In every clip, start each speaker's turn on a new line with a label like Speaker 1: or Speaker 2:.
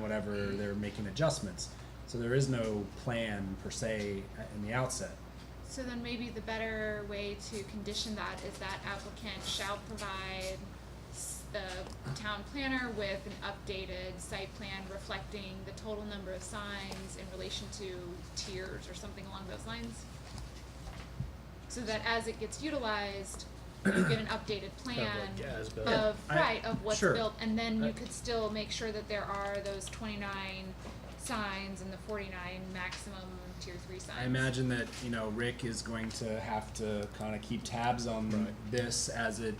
Speaker 1: whatever they're making adjustments. So there is no plan per se a- in the outset.
Speaker 2: So then maybe the better way to condition that is that applicant shall provide s- the town planner with an updated site plan reflecting the total number of signs in relation to tiers or something along those lines. So that as it gets utilized, you get an updated plan
Speaker 3: like as-built.
Speaker 1: Yeah,
Speaker 2: of,
Speaker 1: I-
Speaker 2: right, of what's
Speaker 1: sure.
Speaker 2: built, and then you
Speaker 1: I-
Speaker 2: could still make sure that there are those twenty-nine signs and the forty-nine maximum tier three signs.
Speaker 1: I imagine that you know Rick is going to have to kind of keep tabs on this as it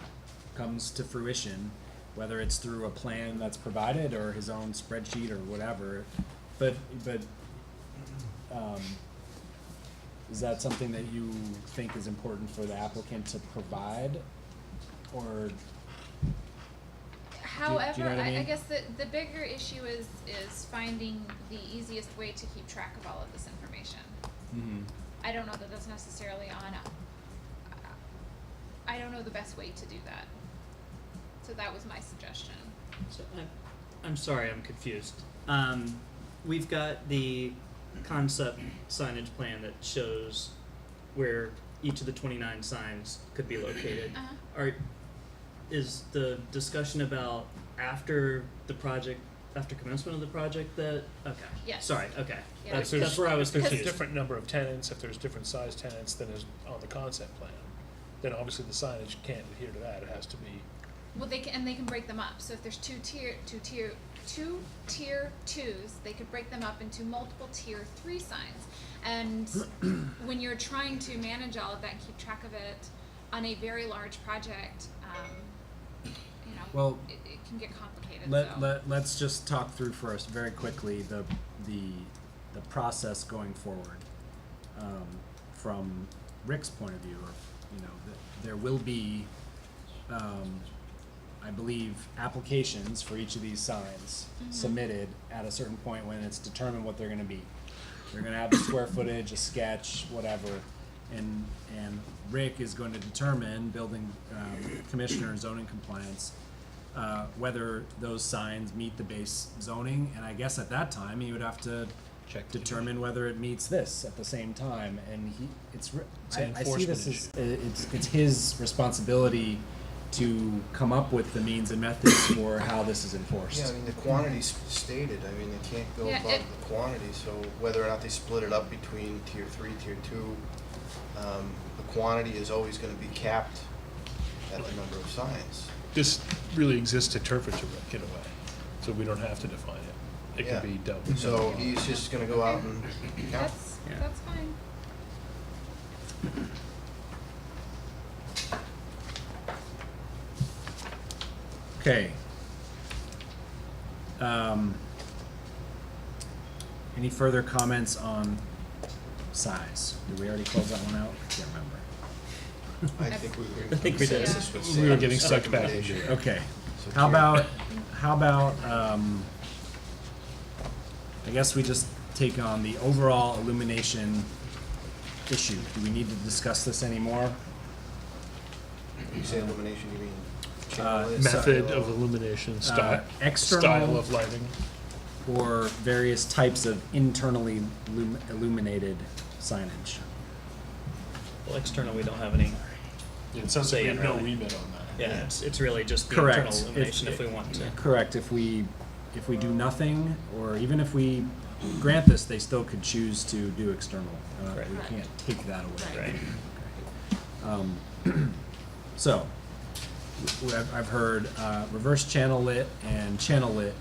Speaker 1: comes to fruition, whether it's through a plan that's provided or his own spreadsheet or whatever. But but um, is that something that you think is important for the applicant to provide, or do you
Speaker 2: However,
Speaker 1: know what I
Speaker 2: I, I
Speaker 1: mean?
Speaker 2: guess the, the bigger issue is, is finding the easiest way to keep track of all of this information.
Speaker 1: Mm-hmm.
Speaker 2: I don't know that that's necessarily on, a- I don't know the best way to do that. So that was my suggestion.
Speaker 3: So I'm, I'm sorry, I'm confused. Um, we've got the concept signage plan that shows where each of the 29 signs could be located.
Speaker 2: Uh-huh.
Speaker 3: Are, is the discussion about after the project, after commencement of the project that, okay.
Speaker 2: Yes.
Speaker 3: Sorry, okay.
Speaker 2: Yeah.
Speaker 3: That's,
Speaker 4: If there's-
Speaker 3: that's where I was
Speaker 4: if there's a
Speaker 3: confused.
Speaker 4: different number of tenants, if there's different size tenants than is on the concept plan, then obviously the signage can't adhere to that, it has to be,
Speaker 2: Well, they can, and they can break them up, so if there's two tier, two tier, two tier twos, they could break them up into multiple tier three signs. And when you're trying to manage all of that and keep track of it on a very large project, um, you know,
Speaker 1: Well,
Speaker 2: it, it can get complicated,
Speaker 1: Let,
Speaker 2: so.
Speaker 1: let, let's just talk through first, very quickly, the, the, the process going forward. Um, from Rick's point of view, or, you know, th- there will be, um, I believe, applications for each of these signs
Speaker 2: Mm-hmm.
Speaker 1: submitted at a certain point when it's determined what they're gonna be. They're gonna have the square footage, a sketch, whatever, and, and Rick is going to determine, building, um, commissioner and zoning compliance, uh, whether those signs meet the base zoning, and I guess at that time, he would have to
Speaker 5: Check the
Speaker 1: determine whether it meets this at the same time, and he, it's, re-
Speaker 4: It's
Speaker 1: I,
Speaker 4: an
Speaker 1: I see this as,
Speaker 4: enforcement
Speaker 1: i- it's, it's his responsibility to come up with the means and methods for how this is enforced.
Speaker 6: Yeah, I mean, the quantity's stated, I mean, they can't go
Speaker 2: Yeah,
Speaker 6: above
Speaker 2: it-
Speaker 6: the quantity, so whether or not they split it up between tier three, tier two, um, the quantity is always gonna be capped at the number of signs.
Speaker 4: this really exists to interpret to Rick in a way, so we don't have to define it. It
Speaker 6: Yeah.
Speaker 4: can be dealt with.
Speaker 6: So he's just gonna go out and count.
Speaker 2: That's,
Speaker 3: Yeah.
Speaker 2: that's fine.
Speaker 1: Okay. Um, any further comments on size? Did we already close that one out? I can't remember.
Speaker 6: I think we were.
Speaker 3: I think we did.
Speaker 6: consensus with
Speaker 4: We were
Speaker 6: Sam's
Speaker 4: getting sucked back into
Speaker 6: recommendation.
Speaker 4: it.
Speaker 1: Okay.
Speaker 6: So
Speaker 1: How
Speaker 6: tier-
Speaker 1: about, how about, um, I guess we just take on the overall illumination issue. Do we need to discuss this anymore?
Speaker 6: You say illumination, you mean
Speaker 1: Uh,
Speaker 6: channel is?
Speaker 4: Method
Speaker 6: style.
Speaker 4: of illumination,
Speaker 1: Uh,
Speaker 4: style, style
Speaker 1: external
Speaker 4: of lighting.
Speaker 1: or various types of internally lum- illuminated signage?
Speaker 3: Well, external, we don't have any.
Speaker 4: It sounds
Speaker 3: Say
Speaker 4: like we
Speaker 3: it
Speaker 4: have no
Speaker 3: really.
Speaker 4: remit on that.
Speaker 3: Yeah, it's, it's really just the
Speaker 1: Correct.
Speaker 3: internal
Speaker 1: If-
Speaker 3: illumination if we want to.
Speaker 1: Correct, if we, if we do nothing, or even if we grant this, they still could choose to do external. Uh, We
Speaker 3: Correct.
Speaker 1: can't take that away.
Speaker 3: Right.
Speaker 1: Um, So, w- I've, I've heard uh, reverse channel lit and channel lit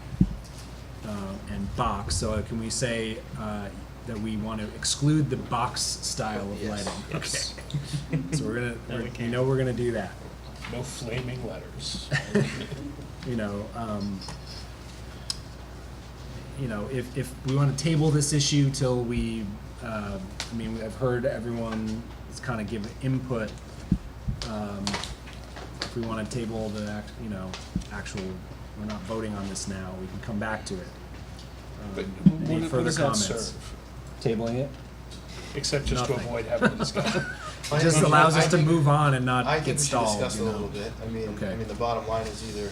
Speaker 1: uh, and box, so can we say uh, that we want to exclude the box style of
Speaker 6: Yes.
Speaker 1: lighting?
Speaker 3: Yes.
Speaker 1: Okay. So we're gonna,
Speaker 3: No, we
Speaker 1: we're- we
Speaker 3: can't.
Speaker 1: know we're gonna do that.
Speaker 4: No flaming letters.
Speaker 1: you know, um, you know, if, if we want to table this issue till we, uh, I mean, I've heard everyone is kind of giving input. Um, if we want to table the, act, you know, actual, we're not voting on this now, we can come back to it.
Speaker 4: But
Speaker 1: Um,
Speaker 4: what-
Speaker 1: Any
Speaker 4: what
Speaker 1: further
Speaker 4: does that
Speaker 1: comments?
Speaker 4: serve?
Speaker 1: Tabling it?
Speaker 4: Except just to
Speaker 1: Nothing.
Speaker 4: avoid having a discussion.
Speaker 6: I
Speaker 1: It just
Speaker 6: think-
Speaker 1: allows
Speaker 6: I
Speaker 1: us to
Speaker 6: think-
Speaker 1: move on and
Speaker 6: I
Speaker 1: not
Speaker 6: think
Speaker 1: get
Speaker 6: we should
Speaker 1: stalled,
Speaker 6: discuss it
Speaker 1: you
Speaker 6: a
Speaker 1: know?
Speaker 6: little bit. I mean,
Speaker 1: Okay.
Speaker 6: I mean, the bottom line is either,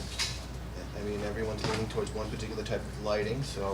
Speaker 6: I mean, everyone's leaning towards one particular type of lighting, so